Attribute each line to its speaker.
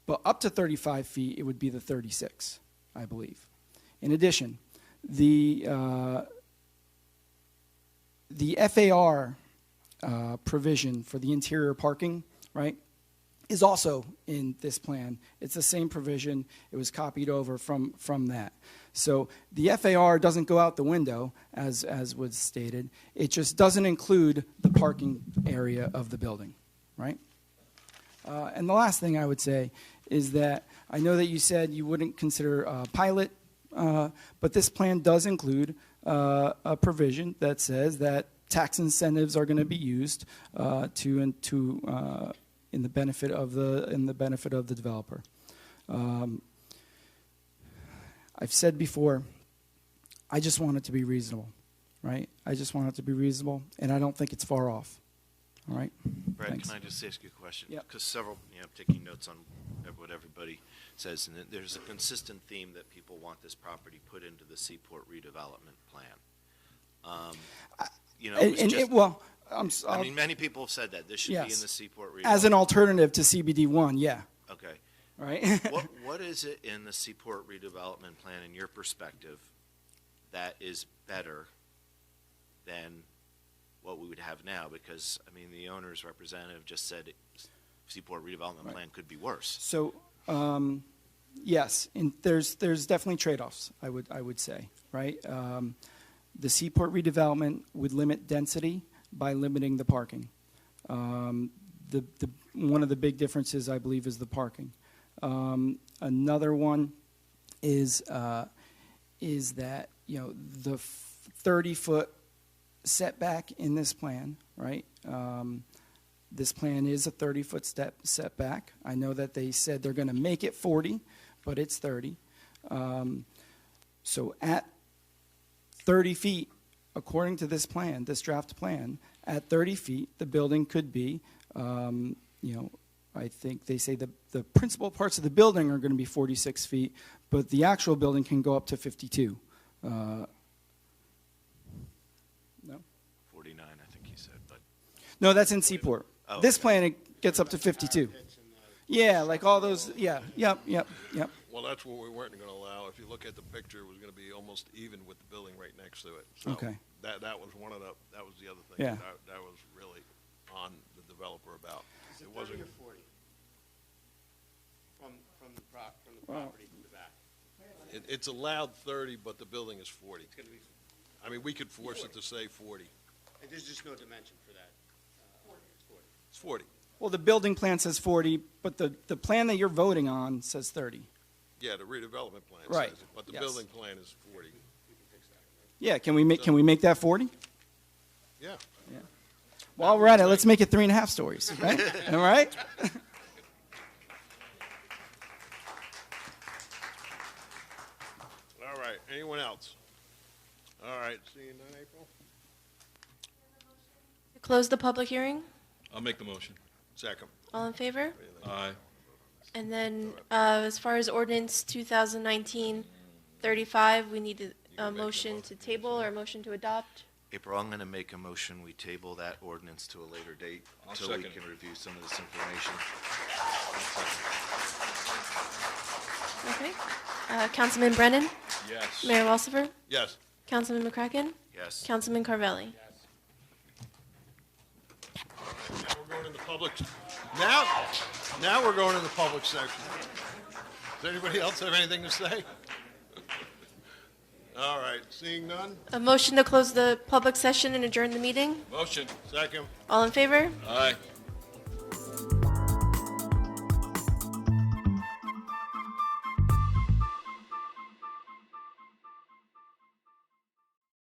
Speaker 1: But up to 35 feet, it would be the 36, I believe. In addition, the, uh, the FAR uh, provision for the interior parking, right, is also in this plan. It's the same provision. It was copied over from, from that. So the FAR doesn't go out the window, as, as was stated. It just doesn't include the parking area of the building, right? Uh, and the last thing I would say is that I know that you said you wouldn't consider a pilot, uh, but this plan does include uh, a provision that says that tax incentives are going to be used uh, to and to uh, in the benefit of the in the benefit of the developer. Um, I've said before, I just want it to be reasonable, right? I just want it to be reasonable, and I don't think it's far off. All right.
Speaker 2: Brad,
Speaker 1: Thanks.
Speaker 2: can I just ask you a question?
Speaker 1: Yep.
Speaker 2: Because several, you know, I'm taking notes on ev- what everybody says, and it- there's a consistent theme that people want this property put into the Seaport redevelopment plan. Um, You know,
Speaker 1: and
Speaker 2: it was
Speaker 1: and it,
Speaker 2: just,
Speaker 1: well, I'm. s-
Speaker 2: I
Speaker 1: I'll-
Speaker 2: mean, many people have said that, this should be in
Speaker 1: Yes.
Speaker 2: the Seaport redevelopment.
Speaker 1: as an alternative to CBD one, yeah,
Speaker 2: Okay.
Speaker 1: right.
Speaker 2: What, what is it in the Seaport redevelopment plan, in your perspective, that is better than what we would have now? Because, I mean, the owner's representative just said it- Seaport redevelopment
Speaker 1: Right.
Speaker 2: plan could be worse.
Speaker 1: so, um, yes, and there's there's definitely trade-offs. I would I would say, right. Um, the seaport redevelopment would limit density by limiting the parking. Um, the, the one of the big differences I believe is the parking. Um, another one is uh, is that you know the 30 foot setback in this plan, right? Um, this plan is a 30 foot step setback. I know that they said they're going to make it 40, but it's 30. Um, so at 30 feet, according to this plan, this draft plan, at 30 feet, the building could be, um, you know, I think they say the, the principal parts of the building are going to be 46 feet, but the actual building can go up to 52. Uh, no?
Speaker 2: Forty-nine, I think he said, but,
Speaker 1: No, that's in Seaport.
Speaker 2: Oh,
Speaker 1: This
Speaker 2: okay.
Speaker 1: plan, it gets up to 52. Yeah, like all those, yeah, yep, yep, yep.
Speaker 3: Well, that's what we weren't gonna allow. If you look at the picture, it was gonna be almost even with the building right next to it. So
Speaker 1: Okay.
Speaker 3: That, that was one of the, that was the other thing.
Speaker 1: Yeah.
Speaker 3: That, that was really on the developer about. It wasn't,
Speaker 4: Thirty or forty? From, from the prop, from the
Speaker 1: Wow.
Speaker 4: property to the back,
Speaker 3: it, it's allowed thirty, but the building is forty.
Speaker 4: it's gonna be,
Speaker 3: I mean, we could force it to say forty.
Speaker 4: and there's just no dimension for that. uh, Forty.
Speaker 3: It's forty.
Speaker 1: Well, the building plan says 40, but the, the plan that you're voting on says 30.
Speaker 3: Yeah, the redevelopment plan
Speaker 1: Right.
Speaker 3: says it, but the
Speaker 1: Yes.
Speaker 3: building plan is forty.
Speaker 1: Yeah, can we make, can we make that 40?
Speaker 3: Yeah.
Speaker 1: While we're at it, let's make it three and a half stories, right? All right?
Speaker 3: All right. Anyone else? All right. Seeing none, April?
Speaker 5: Close the public hearing.
Speaker 6: I'll make the motion.
Speaker 3: Second.
Speaker 5: All in favor?
Speaker 6: Aye.
Speaker 5: And then, uh, as far as ordinance 2019-35, we need a, a motion to table or a motion to adopt.
Speaker 2: April, I'm gonna make a motion, we table that ordinance to a later date,
Speaker 6: I'll
Speaker 2: so we
Speaker 6: second.
Speaker 2: can review some of this information.
Speaker 5: Okay. Uh, Councilman Brennan,
Speaker 6: Yes.
Speaker 5: Mayor Walsifer,
Speaker 3: Yes.
Speaker 5: Councilman McCracken,
Speaker 2: Yes.
Speaker 5: Councilman Carvelli.
Speaker 3: Now we're going in the public, now, now we're going in the public section. Does anybody else have anything to say? All right, seeing none,
Speaker 5: A motion to close the public session and adjourn the meeting.
Speaker 6: Motion.
Speaker 3: second,
Speaker 5: All in favor?
Speaker 6: Aye.